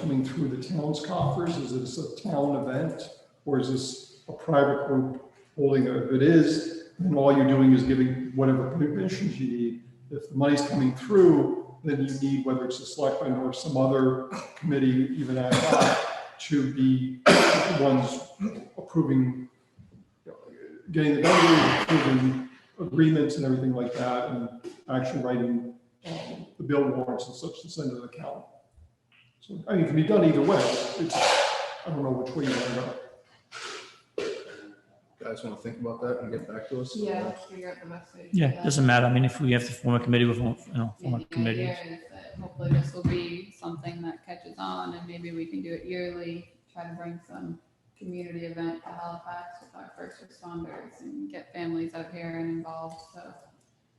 coming through the town's coffers? Is this a town event? Or is this a private group holding it? If it is, then all you're doing is giving whatever permissions you need. If the money's coming through, then you need, whether it's a selectman or some other committee, even ad hoc, to be the ones approving, you know, getting the vendors, approving agreements and everything like that, and actually writing um, the bill warrants and such to send to the county. So, I mean, it can be done either way. It's, I don't know which way you want to go. Guys want to think about that and get back to us? Yeah, let's figure out the message. Yeah, it doesn't matter. I mean, if we have to form a committee, we'll, form- you know, form a Maybe the committee. idea is that hopefully this will be something that catches on and maybe we can do it yearly, try to bring some community event to Halifax with our first responders and get families out here and involved, so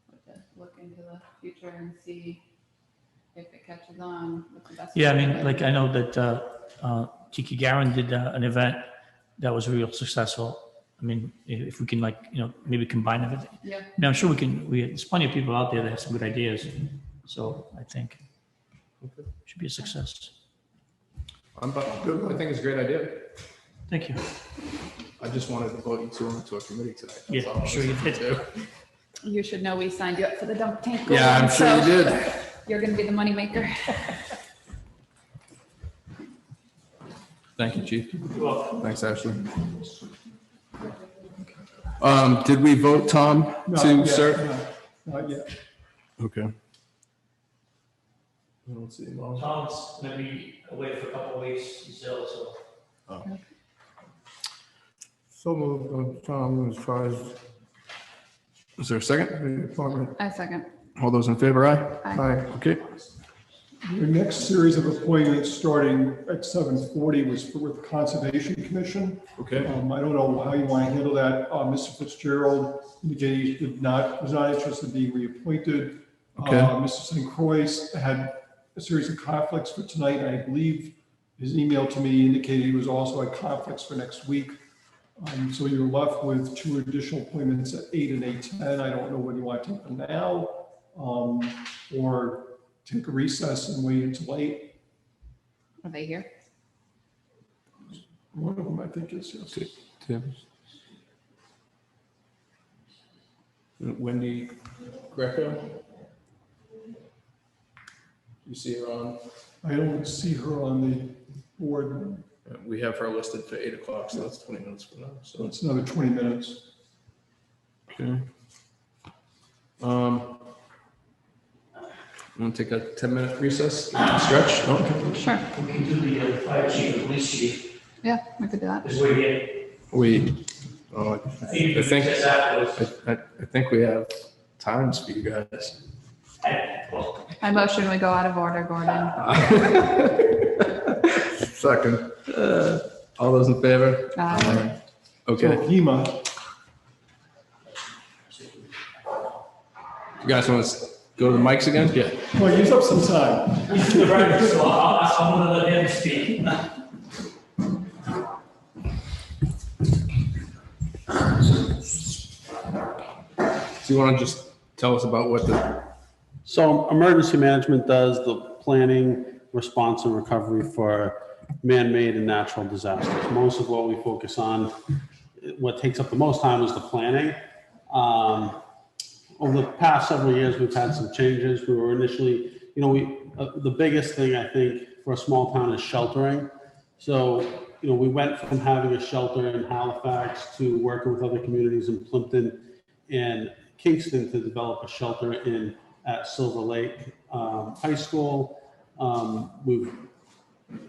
we'll just look into the future and see if it catches on with the best. Yeah, I way to mean, do like, it. I know that uh, uh, Tiki Garin did uh, an event that was real successful. I mean, i- if we can like, you know, maybe combine it. Yeah. I mean, I'm sure we can, we, there's plenty of people out there that have some good ideas. So I think Okay. should be a success. I'm bu- good. I think it's a great idea. Thank you. I just wanted to vote you two into a committee tonight. That's Yeah, all I sure you was did. gonna You should know we signed you up for the dump tank. do. Yeah, I'm goal, sure you so did. You're gonna be the moneymaker. Thank you, chief. You're welcome. Thanks, Ashley. Um, did we vote Tom Not to yet, serve? no, Not yet. Okay. I don't see him on. Tom's gonna be away for a couple of weeks. He's ill, so. So moved on Tom as far as Is there a second? the appointment. I second. All those in favor, aye? Aye. Okay, Your next series of appointments starting at seven forty was for with the Conservation Commission. okay. Um, I don't know how you want to handle that. Uh, Mr. Fitzgerald indicated he did not, was not interested in being reappointed. Okay. Uh, Mr. St. Croix had a series of conflicts for tonight. I believe his email to me indicated he was also at conflicts for next week. Um, so you're left with two additional appointments at eight and eight ten. I don't know whether you want to take them now, um, or take a recess and wait until eight. Are they here? One of them, I think, is yes. Tim. Wendy Greco? You see her on? I don't see her on the board. Uh, We have her listed for eight o'clock, so that's twenty minutes from now, So so. it's another 20 minutes. okay. Um. Want to take a ten minute recess, stretch? No? Sure. We can do the uh, fire chief and police chief, Yeah, we could do that. because we're here. We, I oh, I think we I can think, just afterwards. I, I- I think we have times for you guys. I- well, I motion we go out of order, Gordon. Second. Uh, All those in favor? Uh, So Okay, HEMA, you guys want to go to the mics again? Yeah. well, use up some time. He's the right, so I'll- I'll- I'm gonna let him speak. So you want to just tell us about what the, So emergency management does the planning, response and recovery for man-made and natural disasters. Most of what we focus on, what takes up the most time is the planning. Um, Over the past several years, we've had some changes. We were initially, you know, we, uh, the biggest thing I think for a small town is sheltering. So, you know, we went from having a shelter in Halifax to working with other communities in Plimpton and Kingston to develop a shelter in, at Silver Lake um, High School. Um, We've,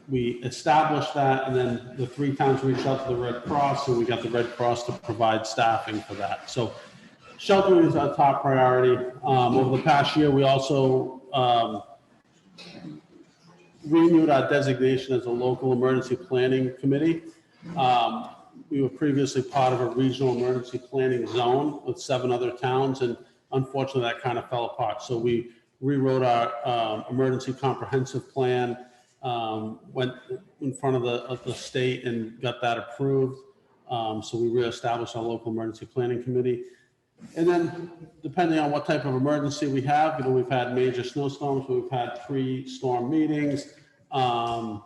we established that, and then the three towns reached out to the Red Cross, and we got the Red Cross to provide staffing for that. So sheltering is our top priority. Um, Over the past year, we also um, renewed our designation as a local emergency planning committee. Um, We were previously part of a regional emergency planning zone with seven other towns, and unfortunately, that kind of fell apart. So we rewrote our um, emergency comprehensive plan, um, went in front of the, of the state and got that approved. Um, So we reestablished our local emergency planning committee. And then depending on what type of emergency we have, you know, we've had major snowstorms, we've had three storm meetings. Um,